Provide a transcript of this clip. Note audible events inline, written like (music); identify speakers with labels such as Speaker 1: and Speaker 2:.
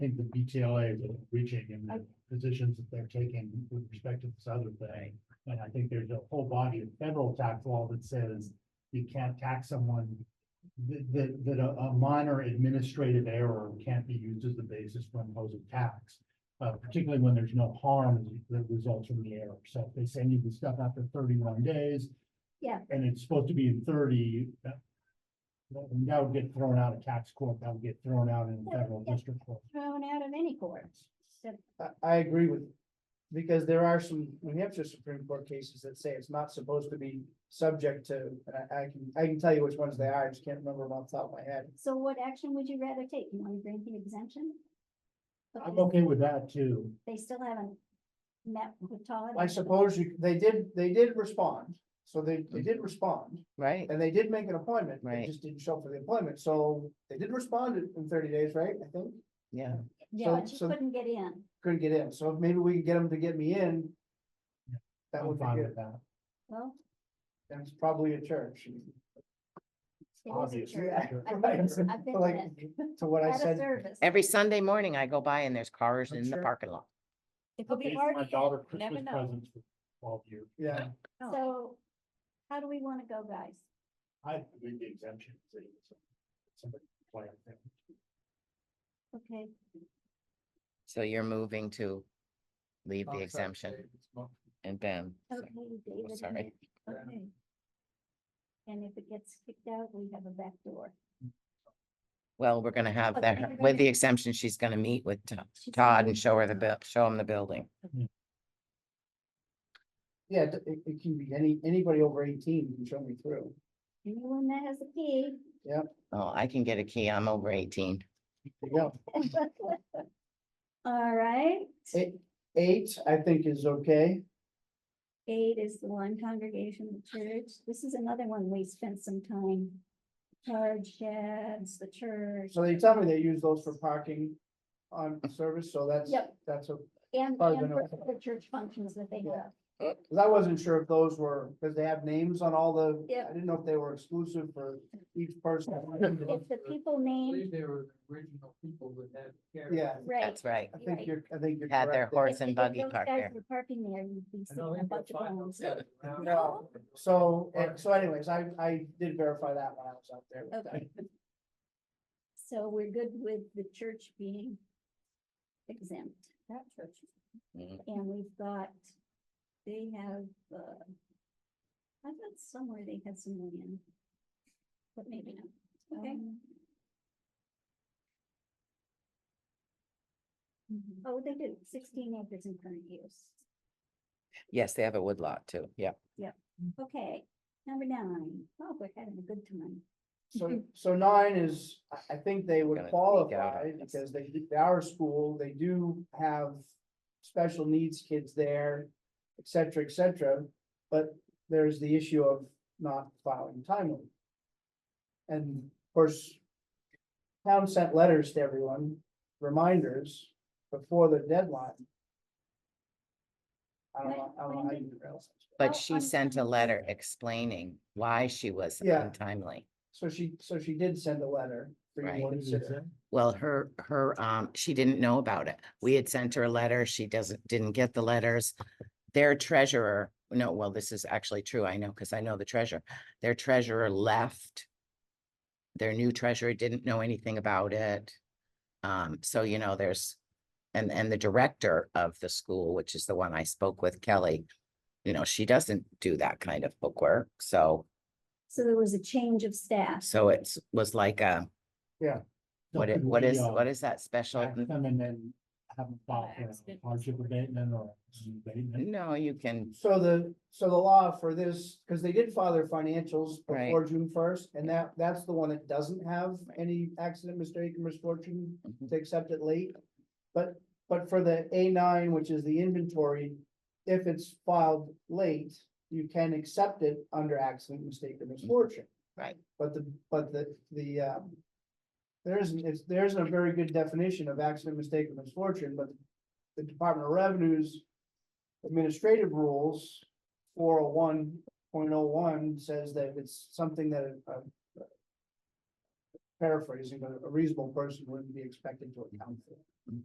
Speaker 1: think the BTLA is reaching and the positions that they're taking with respect to this other thing. And I think there's a whole body of federal tax law that says you can't tax someone. That, that, that a a minor administrative error can't be used as the basis for imposing tax. Uh, particularly when there's no harm that results from the error. So if they send you the stuff after thirty-one days.
Speaker 2: Yeah.
Speaker 1: And it's supposed to be in thirty, that, that would get thrown out of tax court, that would get thrown out in
Speaker 2: Yeah,
Speaker 1: federal
Speaker 2: yeah.
Speaker 1: district court.
Speaker 2: thrown out of any court. So,
Speaker 3: I, I agree with, because there are some New Hampshire Supreme Court cases that say it's not supposed to be subject to, and I, I can, I can tell you which ones they are, I just can't remember them off the top of my head.
Speaker 2: so what action would you rather take? You want to grant the exemption?
Speaker 1: I'm
Speaker 2: Because
Speaker 1: okay with that too.
Speaker 2: They still haven't met with Todd.
Speaker 3: I suppose you, they did, they did respond, so they, they did respond,
Speaker 4: right?
Speaker 3: and they did make an appointment, they
Speaker 4: Right.
Speaker 3: just didn't show up for the appointment, so they did respond in- in thirty days, right, I think?
Speaker 4: Yeah,
Speaker 2: Yeah,
Speaker 3: so-
Speaker 2: she
Speaker 3: so-
Speaker 2: couldn't get in.
Speaker 3: Couldn't get in, so maybe we can get them to get me in. That
Speaker 1: I'm
Speaker 3: would be
Speaker 1: fine
Speaker 3: good,
Speaker 1: with that.
Speaker 2: Well,
Speaker 3: that's probably a church.
Speaker 2: it is a
Speaker 1: Obviously,
Speaker 2: church.
Speaker 1: sure.
Speaker 2: I've been there. I've been
Speaker 3: Like,
Speaker 2: there.
Speaker 3: To what I
Speaker 2: Out of
Speaker 3: said.
Speaker 2: service.
Speaker 4: every Sunday morning I go by and there's cars
Speaker 3: I'm
Speaker 4: in the
Speaker 3: Oh, sure.
Speaker 4: parking lot.
Speaker 5: It could be
Speaker 1: It's
Speaker 5: hard.
Speaker 1: My daughter
Speaker 5: never
Speaker 1: Christmas
Speaker 5: know.
Speaker 1: presents for twelve years.
Speaker 3: Yeah,
Speaker 5: No.
Speaker 2: So how do we want to go, guys?
Speaker 1: I read the exemption. so it's- somebody play it there.
Speaker 2: Okay,
Speaker 4: So you're moving to leave the
Speaker 3: Oh, sorry,
Speaker 4: exemption
Speaker 3: Dave, it's mo-
Speaker 4: and Ben. so- oh,
Speaker 2: okay, David. and
Speaker 4: sorry.
Speaker 2: Nick. Okay. And if it gets kicked out, we have a back door.
Speaker 4: Well, we're gonna have
Speaker 2: Okay,
Speaker 4: that,
Speaker 2: we're
Speaker 4: with the
Speaker 2: gonna-
Speaker 4: exemption, she's gonna meet with To-
Speaker 2: She's
Speaker 4: Todd
Speaker 2: gonna-
Speaker 4: and show her the bill, show him the building.
Speaker 3: Yeah, it, it- it can be any, anybody over eighteen can show me through.
Speaker 2: Anyone that has a key. (laughs)
Speaker 4: Oh, I can get a key. I'm over eighteen.
Speaker 3: There you go.
Speaker 2: All right,
Speaker 3: Eight, eight, I think is okay.
Speaker 2: eight is the one congregational church. This is another one we spent some time. Charge sheds, the church.
Speaker 3: So they tell me they use those for parking on service, so that's,
Speaker 2: Yep.
Speaker 3: that's a,
Speaker 2: And, and
Speaker 3: Probably been
Speaker 2: for
Speaker 3: okay.
Speaker 2: the church functions that they
Speaker 3: Yeah.
Speaker 2: have.
Speaker 3: cause I wasn't sure if those were, cause they have names on all the.
Speaker 2: Yep.
Speaker 3: I didn't know if they were exclusive for each person.
Speaker 2: If the people name,
Speaker 6: they were the original people that had. carried
Speaker 3: Yeah,
Speaker 2: right.
Speaker 4: That's right.
Speaker 3: I
Speaker 2: Right.
Speaker 3: think you're, I think you're.
Speaker 4: Had their
Speaker 3: correct there.
Speaker 4: horse and buggy
Speaker 2: park
Speaker 4: parked there.
Speaker 2: Parking there, you'd be
Speaker 6: I
Speaker 2: seeing
Speaker 6: don't
Speaker 2: a
Speaker 6: think
Speaker 2: bunch
Speaker 6: they're
Speaker 2: of
Speaker 6: fine
Speaker 2: bones.
Speaker 6: with that.
Speaker 3: No. So, and- so anyways, I, I did verify that when I was out there. with
Speaker 2: Okay. So we're good with the church being exempt. That church.
Speaker 4: Mhm.
Speaker 2: And we've got, they have, uh, I thought somewhere they had some land. But maybe not. Okay. Oh, they do, sixteen acres in current use.
Speaker 4: Yes, they have a wood lot too. Yeah.
Speaker 2: Okay, number nine. Oh, we're having a good time.
Speaker 3: So, so nine is, I, I think they would
Speaker 4: Gonna take out
Speaker 3: qualify
Speaker 4: of this.
Speaker 3: because they, they are a school, they do have special needs kids there, et cetera, et cetera. But there's the issue of not filing timely. And of course, town sent letters to everyone, reminders before the deadline. I don't know, I don't know how you do that.
Speaker 2: How
Speaker 4: But she sent a
Speaker 2: untimely.
Speaker 4: letter explaining why she was
Speaker 3: Yeah.
Speaker 4: untimely.
Speaker 3: So she, so she did send a letter. for you to
Speaker 4: Right.
Speaker 1: What does it
Speaker 3: consider.
Speaker 1: say?
Speaker 4: Well, her, her, um, she didn't know about it. We had sent her a letter. She doesn't, didn't get the letters. Their treasurer, no, well, this is actually true. I know, because I know the treasurer. Their treasurer left. Their new treasurer didn't know anything about it. Um, so you know, there's, and, and the director of the school, which is the one I spoke with, Kelly. You know, she doesn't do that kind of bookwork, so,
Speaker 2: So there was a change of staff.
Speaker 4: so it's, was like a, what, it-
Speaker 1: Something
Speaker 4: what
Speaker 1: we,
Speaker 4: is,
Speaker 1: uh,
Speaker 4: what is that special?
Speaker 1: tax them and then have them file for a hardship abatement or abatement.
Speaker 4: No, you can
Speaker 3: So the, so the law for this, because they did file their financials
Speaker 4: Right.
Speaker 3: before June first, and that, that's the one that doesn't have any accident, mistake, or misfortune
Speaker 4: Mhm.
Speaker 3: to accept it late. But, but for the A nine, which is the inventory, if it's filed late, you can accept it under accident, mistake, or misfortune.
Speaker 4: Right.
Speaker 3: But the, but the, the, uh, there isn't, it's, there isn't a very good definition of accident, mistake, or misfortune, but the Department of Revenue's administrative rules, four oh one point oh one says that it's something that uh, a a- paraphrasing, but a reasonable person wouldn't be expected to account for.